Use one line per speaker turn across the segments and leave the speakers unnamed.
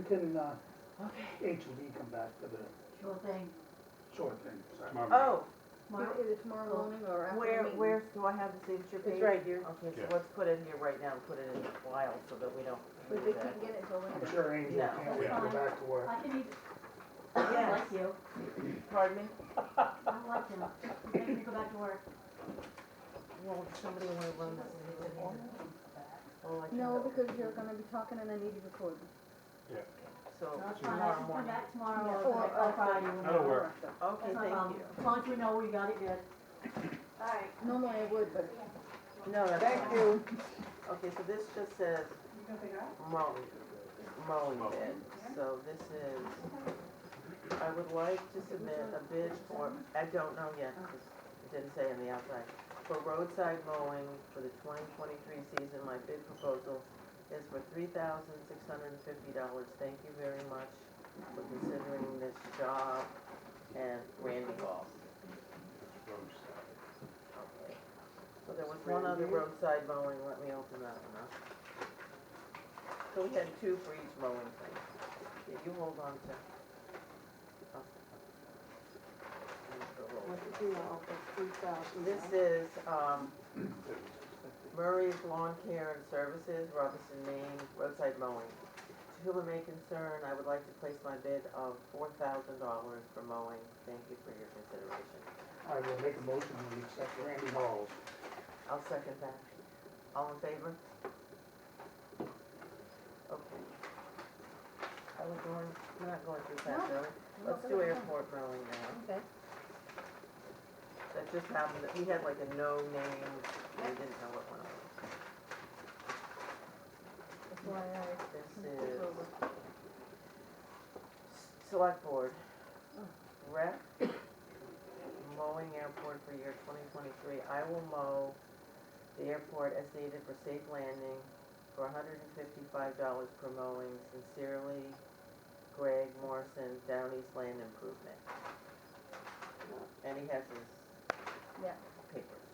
We can, uh,
Okay.
H and D come back to the
Sure thing.
short thing, sorry.
Oh,
tomorrow.
Mark,
Either tomorrow Oh. morning or after
where,
the meeting.
where, do I have the signature page?
It's right here.
Okay, so
Yeah.
let's put it in here right now, and put it in the file so that we don't.
But they
lose that.
can't get it till
I'm
later.
sure Angel
No.
can't wait to go back to work.
I can eat, I
Yes,
like you,
pardon me?
I like him, he's making me go back to work.
Well, somebody wanna run this in here. Well, I can
No,
go.
because you're gonna be talking and I need you recorded.
So
That's fine, I
tomorrow
can come
morning.
back tomorrow
Or-
or
or
on Friday.
That'll work.
Oh, Okay,
That's no
thank
problem,
you.
as long as we know we got it good. Alright.
Normally I would, but
No, that's
thank
fine.
you.
Okay, so this just says mowing, mowing bid. So this is, I would like to submit a bid for, I don't know yet, 'cause it didn't say on the outside. For roadside mowing for the twenty twenty-three season, my bid proposal is for three thousand six hundred and fifty dollars. Thank you very much for considering this job and Randy Hall. Okay. So there was one other roadside mowing, let me open that one up. So we had two for each mowing thing. Yeah, you hold on to. oh. Here's the roll. This is, um, Murray's Lawn Care and Services, Robinson, Maine, roadside mowing. To whom it may concern, I would like to place my bid of four thousand dollars for mowing. Thank you for your consideration.
I will make a motion to accept Randy Hall's.
I'll second that. All in favor? Okay. Are we going, we're not going through that,
No.
are we? Let's do airport mowing now.
Okay.
That just happened, that we had like a no name, we didn't know what one it was.
That's why I.
This is select board. Rec, mowing airport for year twenty twenty-three. I will mow the airport as needed for safe landing for hundred and fifty-five dollars per mowing. Sincerely, Greg Morrison, Down East Land Improvement. And he has his
Yeah.
papers.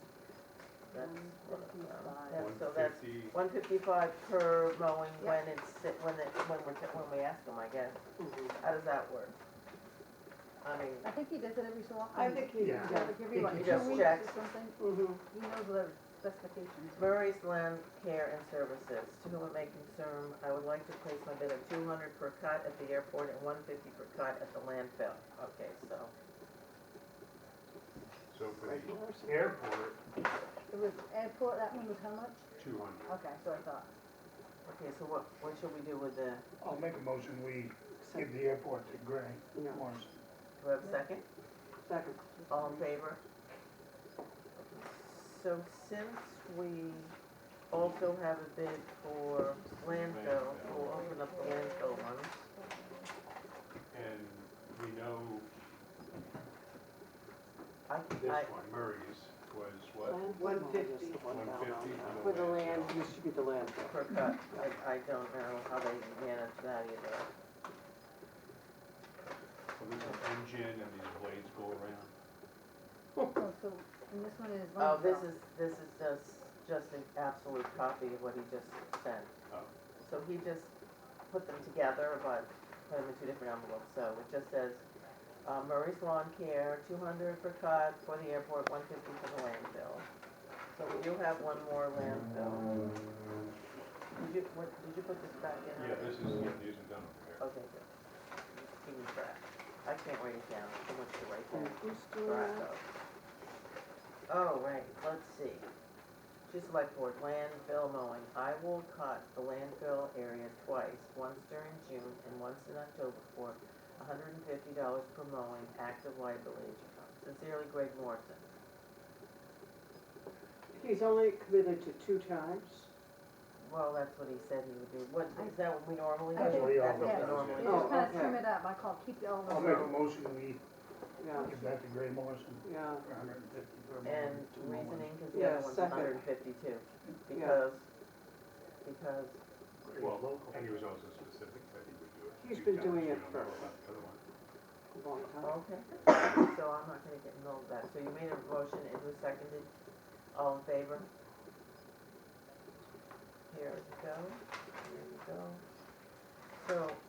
That's, what it- um,
155.
that's- so that's one fifty-five per mowing when it's, si- when it, when we're, t- when we ask them, I guess. How does that work? I mean,
I think he does it every so often.
I think he,
Yeah.
Yeah, like every like
He
two
just
weeks
checks.
or something.
Mm-hmm.
He knows the specifications.
Murray's Land Care and Services, to whom it may concern, I would like to place my bid of two hundred per cut at the airport and one fifty per cut at the landfill. Okay, so,
So for the
Airport,
It was airport, that one was how much?
two hundred.
Okay, so I thought.
okay, so what, what shall we do with the,
I'll make a motion, we give the airport to Gray Morrison.
do we have a second?
second.
All in favor? So since we also have a bid for landfill, we'll open up the landfill one.
And we know
I,
this
I,
one, Murray's, was what,
One fifty.
one fifty for
For
the land?
This should be the landfill.
per cut, I, I don't know how they manage that either.
Well, there's an engine and these blades go around.
Oh, so, and this one is.
Oh, this
landfill.
is, this is just, just an absolute copy of what he just sent.
Oh.
So he just put them together, but put them in two different envelopes, so it just says, uh, Murray's Lawn Care, two hundred per cut for the airport, one fifty for the landfill. So we do have one more landfill. Did you, what, did you put this back in?
Yeah, this is, yeah, these are done over here.
Okay, good. Give me that. I can't write it down, too much to write down.
Who's doing
Right,
that?
though. Oh, right, let's see. Just like for landfill mowing, I will cut the landfill area twice, once during June and once in October for hundred and fifty dollars per mowing, active liability insurance. Sincerely, Greg Morrison.
He's only committed to two times.
Well, that's what he said he would do. What, is that what we normally do?
I think-
That's what
yeah. Oh,
we normally
You
do.
just kinda
okay.
trim it up, I call keep the all the.
I'll make a motion, we
Oh.
Yeah,
give that to Gray Morrison
yeah.
for hundred and fifty per month.
And
two more.
reasoning, because the other
Yeah,
one's
second.
hundred and fifty-two,
Yeah.
because, because
Gray's
Well,
local.
and he was also specific that he would do it.
He's
two
been
times.
doing
We
it
don't know
for-
about the other one.
A long time.
Okay, so I'm not gonna get involved with that. So you made a motion, it was seconded, all in favor? Here we go, here we go. So